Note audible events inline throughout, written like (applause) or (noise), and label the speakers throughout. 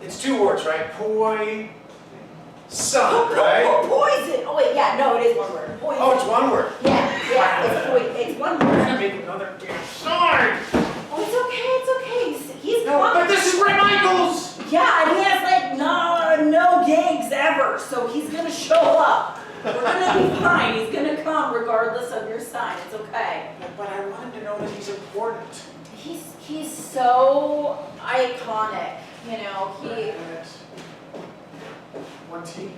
Speaker 1: It's two words, right? Poi, son, right?
Speaker 2: Oh, Poison, oh wait, yeah, no, it is one word, poison.
Speaker 1: Oh, it's one word.
Speaker 2: Yeah, yeah, it's poi, it's one word.
Speaker 1: I made another damn sign.
Speaker 2: Oh, it's okay, it's okay, he's, he's
Speaker 1: No,
Speaker 2: gone.
Speaker 1: but this is Ray Michaels.
Speaker 2: Yeah, and he has like no, no gigs ever, so he's gonna show up. We're gonna be fine, he's gonna come regardless of your sign, it's okay.
Speaker 1: But I wanted to know that he's important.
Speaker 2: He's, he's so iconic, you know, he,
Speaker 1: One T.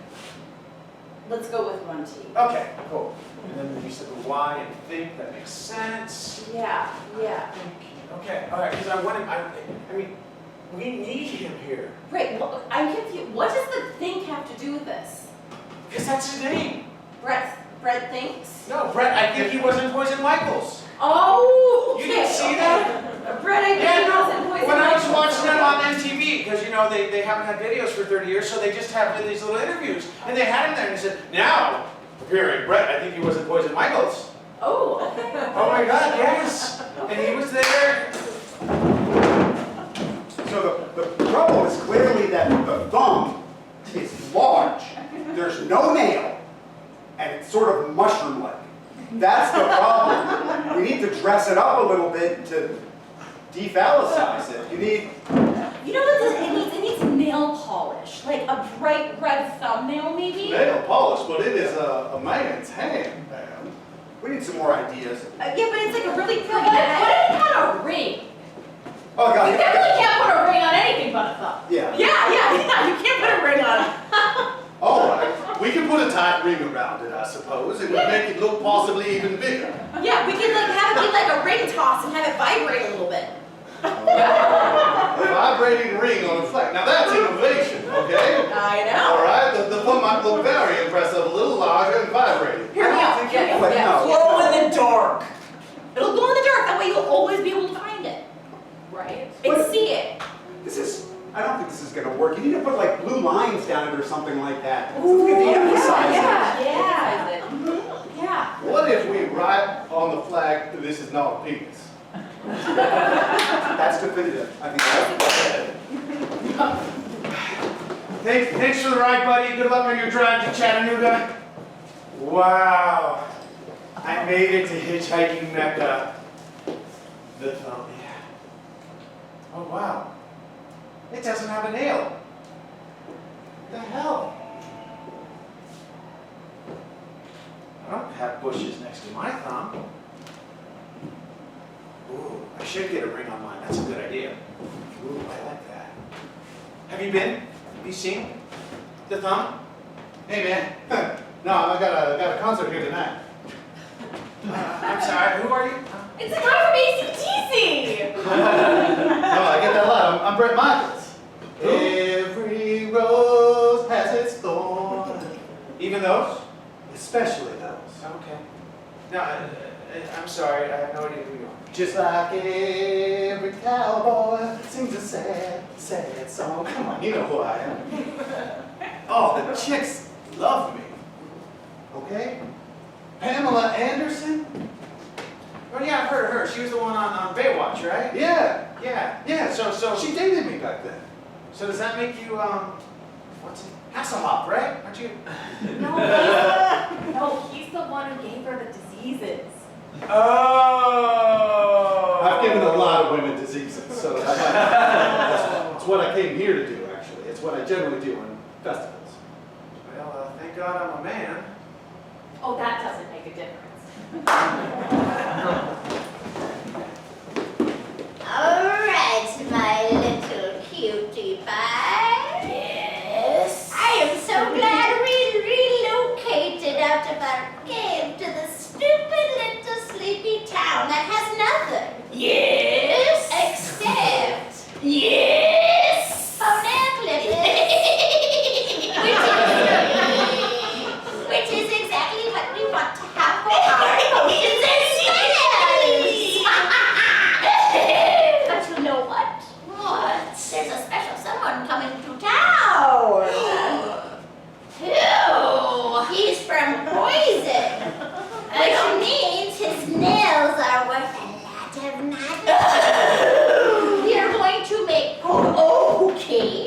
Speaker 2: let's go with one T.
Speaker 1: Okay, cool. And then you said the Y and think, that makes sense.
Speaker 2: Yeah, yeah.
Speaker 1: Okay, all right, because I wanted, I, I mean, we need him here,
Speaker 2: Right, well, I'm confused, what does the think have to do with this?
Speaker 1: because that's his name.
Speaker 2: Brett, Brett thinks?
Speaker 1: No, Brett, I think he was in Poison Michaels.
Speaker 2: Oh,
Speaker 1: You
Speaker 2: okay.
Speaker 1: didn't see
Speaker 2: okay.
Speaker 1: that?
Speaker 2: Brett, I
Speaker 1: Yeah,
Speaker 2: think
Speaker 1: no,
Speaker 2: wasn't poison.
Speaker 1: when I was
Speaker 2: ivy.
Speaker 1: watching them on MTV, because you know, they, they haven't had videos for thirty years, so they just have these little interviews. And they had him there and he said, now, appearing Brett, I think he was in Poison Michaels.
Speaker 2: Oh, (laughs) okay.
Speaker 1: Oh my god, yes, and he was there.
Speaker 3: So the, the problem is clearly that the thumb is large, there's no nail, and it's sort of mushroom-like. That's the problem. We need to dress it up a little bit to defallicize it. You need,
Speaker 2: You know what this, it needs? It needs nail polish, like a bright red thumbnail, maybe.
Speaker 3: nail polish, but it is a, a man's hand, man. We need some more ideas.
Speaker 2: Uh, yeah, but it's like a really pretty. What, if it had a ring?
Speaker 3: Oh,
Speaker 2: You
Speaker 3: God.
Speaker 2: definitely can't put a ring on anything but a thumb.
Speaker 3: Yeah.
Speaker 2: Yeah, yeah, (laughs) yeah. You can't put a ring on. it.
Speaker 3: All right. We can put a tight ring around it, I suppose. It would make it look possibly even bigger.
Speaker 2: Yeah, we could like have it be like a ring toss and have it vibrate a little
Speaker 1: (laughs)
Speaker 2: bit.
Speaker 3: A vibrating ring on a flag. Now that's innovation, okay?
Speaker 2: I know.
Speaker 3: All right, the, the thumb might look very impressive, a little larger and vibrating.
Speaker 2: Here we
Speaker 3: I
Speaker 2: go.
Speaker 3: think you
Speaker 2: Yeah,
Speaker 3: quite
Speaker 2: yeah.
Speaker 3: know.
Speaker 2: in the dark. It'll glow in the dark. That way you'll always be able to find it. Right. And
Speaker 3: What-
Speaker 2: see it.
Speaker 3: This is, I don't think this is gonna work. You need to put like blue lines down it or something like that.
Speaker 2: Ooh,
Speaker 3: Something to de-emphasize it.
Speaker 2: Yeah, yeah. Mhm, Yeah.
Speaker 4: What if we write on the flag, that this is not a penis?
Speaker 3: That's definitive. I think that's.
Speaker 1: Thanks, thanks for the ride, buddy, good luck on your drive to Chattanooga. Wow, I made it to hitchhiking Mecca. The thumb, yeah. Oh, wow, it doesn't have a nail. The hell? I don't have bushes next to my thumb. Ooh, I should get a ring on mine, that's a good idea. Ooh, I like that. Have you been? Have you seen the thumb?
Speaker 4: Hey,
Speaker 1: (laughs)
Speaker 4: man, no, I got a, got a concert here tonight.
Speaker 1: Uh, I'm sorry, who are you?
Speaker 2: It's a guy from ACTC!
Speaker 4: No, I get that a lot, I'm, I'm Brett Michaels.
Speaker 1: Who?
Speaker 4: Every rose has its thorn,
Speaker 1: Even those?
Speaker 4: especially those.
Speaker 1: Okay. No, I, I, I'm sorry, I have no idea who you are.
Speaker 4: Just like every cowboy sings a sad, sad song. Come on, you know who I am. Oh, the chicks love me. Okay? Pamela Anderson?
Speaker 1: Oh yeah, I've heard of her. She was the one on, on Baywatch, right?
Speaker 4: Yeah,
Speaker 1: Yeah.
Speaker 4: yeah.
Speaker 1: So so
Speaker 4: She dated me back then.
Speaker 1: so does that make you um what's it? Hasselhoff, right? Aren't you?
Speaker 5: No, he's the, no, he's the one who gave her the diseases.
Speaker 1: Oh.
Speaker 4: I've given a
Speaker 1: (laughs)
Speaker 4: lot of women diseases, so that's, that's- it's what I came here to do, actually. It's what I generally do on festivals.
Speaker 1: Well, uh, thank God I'm a man.
Speaker 5: Oh, that doesn't make a difference.
Speaker 6: All right, my little cutie pie. Yes. I am so glad we relocated out of our cave to the stupid little sleepy town that has nothing. Yes. Except. Yes. Phone Which is exactly what we want to have for our potions and spells. But you know what? What? There's a special someone coming to
Speaker 5: (gasps)
Speaker 6: (gasps)